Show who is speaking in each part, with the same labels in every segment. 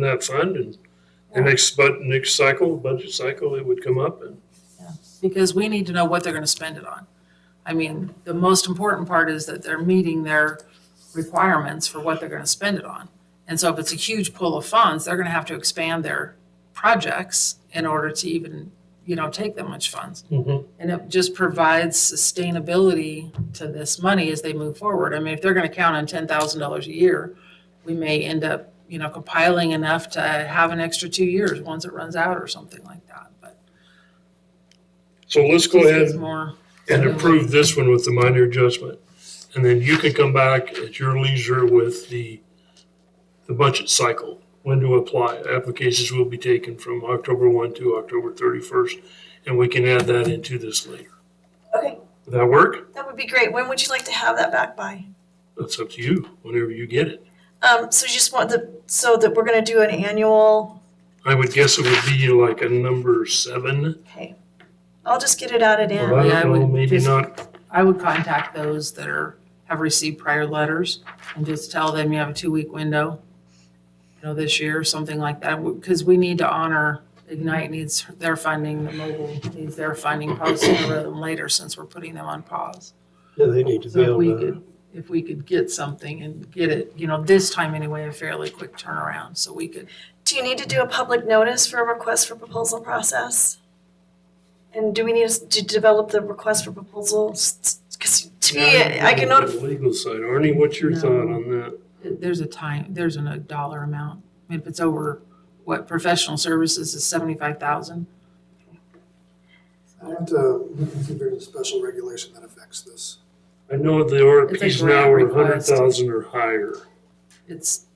Speaker 1: that fund and the next, but next cycle, budget cycle, it would come up and
Speaker 2: because we need to know what they're gonna spend it on. I mean, the most important part is that they're meeting their requirements for what they're gonna spend it on. And so if it's a huge pool of funds, they're gonna have to expand their projects in order to even, you know, take that much funds.
Speaker 1: Mhm.
Speaker 2: And it just provides sustainability to this money as they move forward. I mean, if they're gonna count on ten thousand dollars a year, we may end up, you know, compiling enough to have an extra two years once it runs out or something like that, but.
Speaker 1: So let's go
Speaker 2: this
Speaker 1: ahead
Speaker 2: is More.
Speaker 1: and approve this one with the minor adjustment. And then you can come back at your leisure with the, the budget cycle, when to apply. Applications will be taken from October one to October thirty-first, and we can add that into this later.
Speaker 3: Okay,
Speaker 1: Would that work?
Speaker 3: that would be great. When would you like to have that back by?
Speaker 1: That's up to you, whenever you get it.
Speaker 3: Um, so you just want the, so that we're gonna do an annual,
Speaker 1: I would guess it would be like a number seven.
Speaker 3: okay. I'll just get it added in.
Speaker 1: Well, I
Speaker 2: Yeah, I
Speaker 1: don't know,
Speaker 2: would
Speaker 1: maybe
Speaker 2: just-
Speaker 1: not.
Speaker 2: I would contact those that are, have received prior letters and just tell them you have a two-week window, you know, this year, or something like that, because we need to honor, Ignite needs their funding, the mobile needs their funding probably sooner rather than later, since we're putting them on pause.
Speaker 4: Yeah, they need to
Speaker 2: So
Speaker 4: be
Speaker 2: if
Speaker 4: able
Speaker 2: we
Speaker 4: to,
Speaker 2: could, if we could get something and get it, you know, this time anyway, a fairly quick turnaround, so we could,
Speaker 3: Do you need to do a public notice for a request for proposal process? And do we need to develop the request for proposals? Because to me, I can notify,
Speaker 1: Legal side. Arnie, what's your
Speaker 2: No.
Speaker 1: thought on that?
Speaker 2: there's a time, there's a dollar amount. I mean, If it's over, what, professional services is seventy-five thousand?
Speaker 5: Aren't, uh, we can see there's a special regulation that affects this.
Speaker 1: I know the
Speaker 2: It's
Speaker 1: RFPs
Speaker 2: a
Speaker 1: now
Speaker 2: grant
Speaker 1: are hundred
Speaker 2: request.
Speaker 1: thousand or higher.
Speaker 2: It's,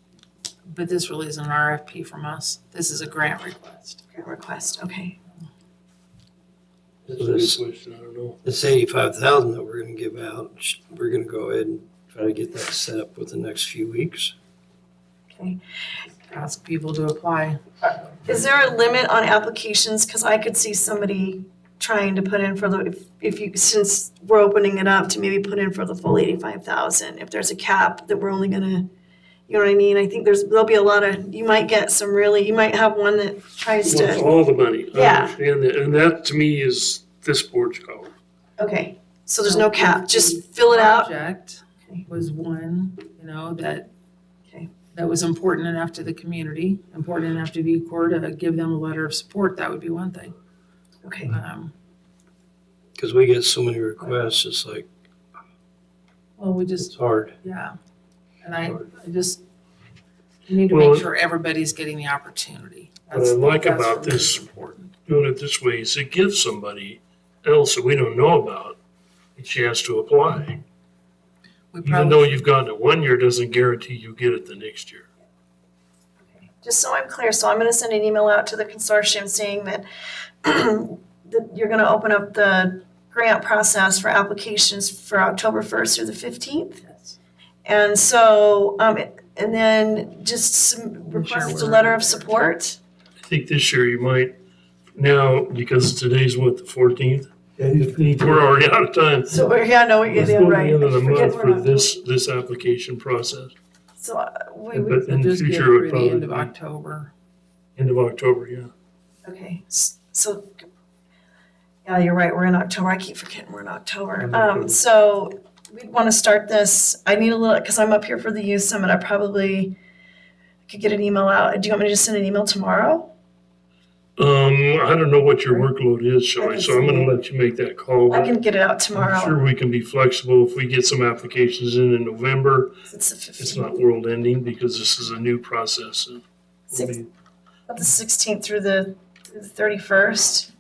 Speaker 2: but this really isn't an RFP from us. This is a grant request.
Speaker 3: request, okay.
Speaker 1: That's a good
Speaker 4: this,
Speaker 1: question, I don't know.
Speaker 4: this eighty-five thousand that we're gonna give out, sh- we're gonna go ahead and try to get that set up within the next few weeks.
Speaker 2: Ask people to apply.
Speaker 3: Is there a limit on applications? Because I could see somebody trying to put in for the, if- if you, since we're opening it up to maybe put in for the full eighty-five thousand. If there's a cap that we're only gonna, you know what I mean? I think there's, there'll be a lot of, you might get some really, you might have one that tries
Speaker 1: Well, it's
Speaker 3: to,
Speaker 1: all the money. I
Speaker 3: Yeah.
Speaker 1: understand that, and that to me is this board's call.
Speaker 3: okay. So there's no cap, just fill it out.
Speaker 2: Project was one, you know, that,
Speaker 3: Okay.
Speaker 2: that was important enough to the community, important enough to VCOR to give them a letter of support. That would be one thing.
Speaker 3: Okay,
Speaker 2: Um,
Speaker 4: Cause we get so many requests, it's like,
Speaker 2: Well, we just,
Speaker 4: it's hard.
Speaker 2: yeah. And I, I just, we need to
Speaker 1: Well-
Speaker 2: make sure everybody's getting the opportunity.
Speaker 1: What I like
Speaker 2: That's-
Speaker 1: about
Speaker 2: that's
Speaker 1: this-
Speaker 2: Important.
Speaker 1: Doing it this way is it gives somebody else that we don't know about a chance to apply.
Speaker 2: We
Speaker 1: Even
Speaker 2: probably.
Speaker 1: though you've gotten it one year, doesn't guarantee you get it the next year.
Speaker 3: just so I'm clear, so I'm gonna send an email out to the consortium saying that that you're gonna open up the grant process for applications for October first through the fifteenth?
Speaker 2: Yes.
Speaker 3: And so, um, and then just some
Speaker 2: I'm sure
Speaker 3: request a
Speaker 2: we're-
Speaker 3: letter of support.
Speaker 1: I think this year you might, now, because today's what, the fourteenth? We're already out of time.
Speaker 3: So, we're- yeah, no,
Speaker 1: Let's
Speaker 3: yeah,
Speaker 1: go to the
Speaker 3: right.
Speaker 1: end of the
Speaker 3: I forget
Speaker 1: month
Speaker 3: we're
Speaker 1: for
Speaker 3: not-
Speaker 1: this, this application process,
Speaker 3: So, uh, we, we,
Speaker 1: but in the
Speaker 2: Just get
Speaker 1: future, it
Speaker 2: through
Speaker 1: would probably
Speaker 2: the end of
Speaker 1: be
Speaker 2: October.
Speaker 1: end of October, yeah.
Speaker 3: okay, s- so, yeah, you're right, we're in October. I keep forgetting we're in October.
Speaker 1: In October.
Speaker 3: Um, so we'd want to start this. I need a little, because I'm up here for the youth summit. I probably could get an email out. Do you want me to just send an email tomorrow?
Speaker 1: Um, I don't know what your workload is, Shelley, so I'm gonna let you make that call.
Speaker 3: I can get it out
Speaker 1: I'm
Speaker 3: tomorrow.
Speaker 1: sure we can be flexible if we get some applications in in November.
Speaker 3: It's the
Speaker 1: It's
Speaker 3: fifteenth,
Speaker 1: not world ending because this is a new process. and we'll
Speaker 3: sixteenth.
Speaker 1: be-
Speaker 3: the sixteenth through the thirty-first.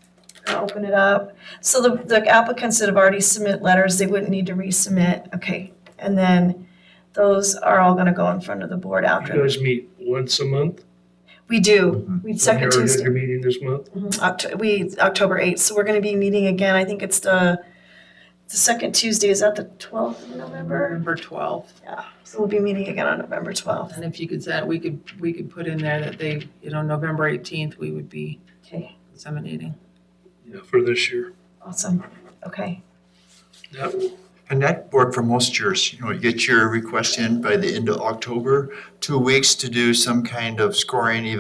Speaker 3: Open it up. So the, the applicants that have already submit letters, they wouldn't need to resubmit, okay. And then those are all gonna go in front of the board
Speaker 1: You
Speaker 3: after.
Speaker 1: guys meet once a month?
Speaker 3: We do, we second
Speaker 1: You're- You're
Speaker 3: Tuesday,
Speaker 1: meeting this month?
Speaker 3: mhm, Oct- we, October eighth, so we're gonna be meeting again, I think it's the, the second Tuesday, is that the twelfth of November?
Speaker 2: November twelfth.
Speaker 3: So we'll be meeting again on November twelfth,
Speaker 2: And if you could say, we could, we could put in there that they, you know, November eighteenth, we would be
Speaker 3: okay,
Speaker 2: disseminating.
Speaker 1: Yeah, for this year.
Speaker 3: awesome, okay.
Speaker 1: That will
Speaker 6: And that worked for most years, you know, you get your request in by the end of October, two weeks to do some kind of scoring evaluation